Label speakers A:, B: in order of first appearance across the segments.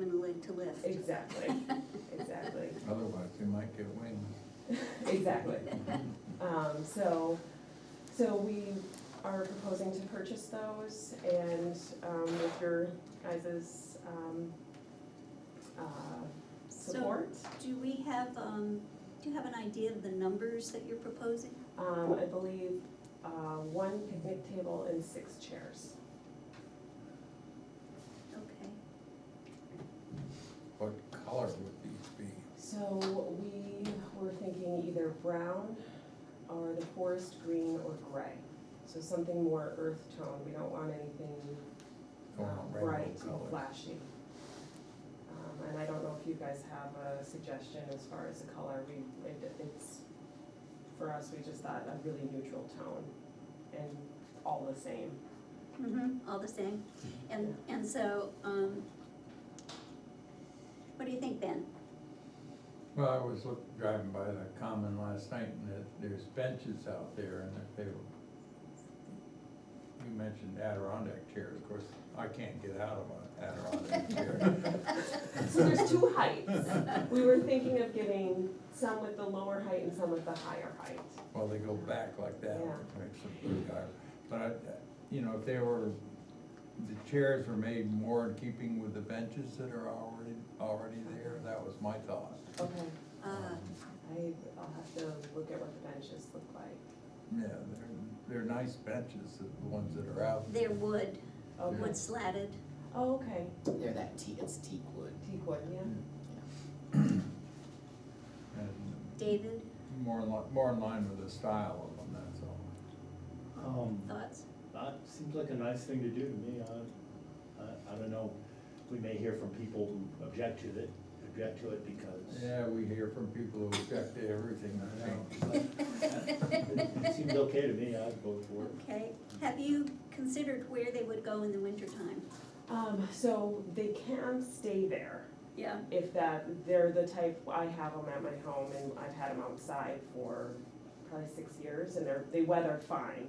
A: list.
B: Exactly, exactly,
C: Otherwise, you might get wings.
B: exactly. Um, so, so we are proposing to purchase those and, um, with your guys' um, uh,
A: So-
B: support.
A: Do we have, um, do you have an idea of the numbers that you're proposing?
B: Um, I believe, uh, one picnic table and six chairs.
A: Okay.
C: What color would these be?
B: So we were thinking either brown or the forest green or gray. So something more earth tone, we don't want anything
C: Go
B: um,
C: on, rainbow
B: bright and
C: colors.
B: flashy. Um, and I don't know if you guys have a suggestion as far as the color, we, it, it's, for us, we just thought a really neutral tone and all the same.
A: Mm-hmm, all the same. And, and so, um, what do you think, Ben?
C: Well, I was look- driving by the common last night and there- there's benches out there and if they were. You mentioned Adirondack chairs, of course, I can't get out of an Adirondack chair.
B: So there's two heights. We were thinking of getting some with the lower height and some with the higher height.
C: Well, they go back like that,
B: Yeah.
C: makes them blue guy. But I, you know, if they were, the chairs were made more in keeping with the benches that are already, already there, that was my thought. Um,
B: Okay.
A: Uh,
B: I, I'll have to look at what the benches look like.
C: Yeah, they're, they're nice benches, the ones that are out.
A: they're wood,
B: Okay.
A: wood slatted.
B: Oh, okay,
D: They're that teak, it's teak wood.
B: teak wood, yeah.
C: And
A: David,
C: more in li- more in line with the style of them, that's all.
E: Um,
A: thoughts?
E: that seems like a nice thing to do to me, I, I, I don't know, we may hear from people who object to it, object to it because.
C: Yeah, we hear from people who object to everything, I know.
E: It seems okay to me, I'd vote for it.
A: Okay, have you considered where they would go in the wintertime?
B: Um, so they can stay there
A: Yeah.
B: if that, they're the type, I have them at my home and I've had them outside for probably six years and they're, they weather fine.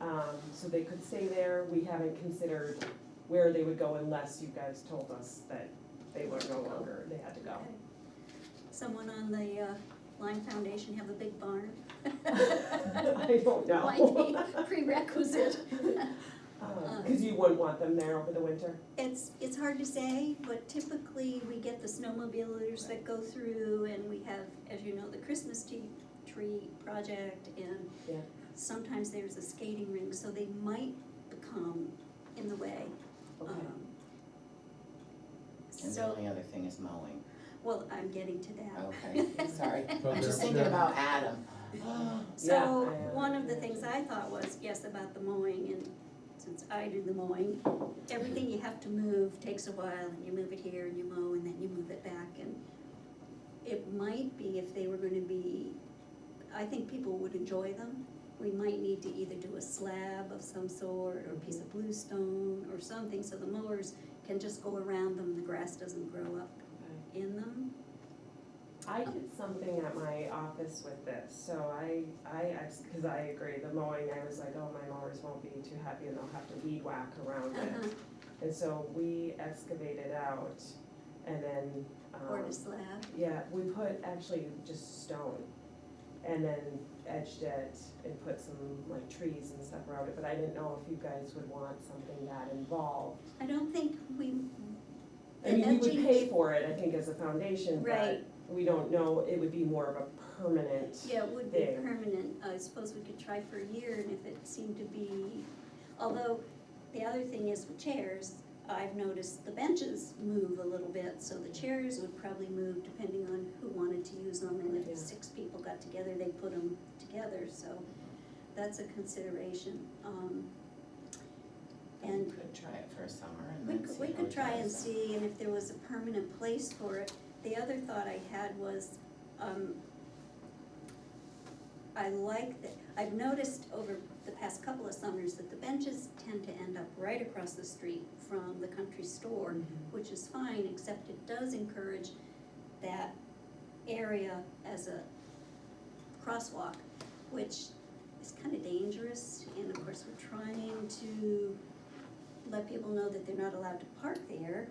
B: Um, so they could stay there, we haven't considered where they would go unless you guys told us that they were no longer, they had to go.
A: Okay. Someone on the uh, Lime Foundation have a big barn?
B: I don't know.
A: Might be prerequisite.
B: Um, Cause you wouldn't want them there over the winter.
A: It's, it's hard to say, but typically we get the snowmobilers that go through and we have, as you know, the Christmas tea, tree project and
B: Yeah.
A: sometimes there's a skating rink, so they might become in the way.
B: Okay.
A: um,
D: And the
A: So,
D: only other thing is mowing.
A: well, I'm getting to that.
D: Okay, sorry.
C: But
D: I'm just
C: they're-
D: thinking about Adam.
A: So,
B: Yeah, I
A: one of the things
B: understand.
A: I thought was, yes, about the mowing, and since I do the mowing, everything you have to move takes a while, and you move it here, and you mow, and then you move it back, and it might be if they were gonna be, I think people would enjoy them. We might need to either do a slab of some sort, or a piece
B: Mm-hmm.
A: of bluestone, or something, so the mowers can just go around them, the grass doesn't grow up in them.
B: I did something at my office with this, so I, I, because I agree, the mowing, I was like, oh, my mowers won't be too happy and they'll have to weed whack around
A: Uh-huh,
B: it. And so we excavated out and then,
A: Or
B: um,
A: a slab,
B: yeah, we put actually just stone and then edged it and put some like trees and stuff around it, but I didn't know if you guys would want something that involved.
A: I don't think we.
B: I mean, we
A: edging-
B: would pay for it, I think, as a foundation, but
A: Right.
B: we don't know, it would be more of a permanent.
A: Yeah, it would be
B: there.
A: permanent, I suppose we could try for a year, and if it seemed to be, although, the other thing is with chairs, I've noticed the benches move a little bit, so the chairs would probably move depending on who wanted to use them, and
B: Yeah.
A: if six people got together, they put them together, so that's a consideration, um,
D: We
A: and
D: could try it for a summer and
A: we
D: then
A: could,
D: see
A: we
D: how
A: could
D: it
A: try and
D: goes.
A: see, and if there was a permanent place for it. The other thought I had was, um, I like that, I've noticed over the past couple of summers that the benches tend to end up right across the street from the country store,
D: Mm-hmm.
A: which is fine, except it does encourage that area as a crosswalk, which is kind of dangerous, and of course, we're trying to let people know that they're not allowed to park there,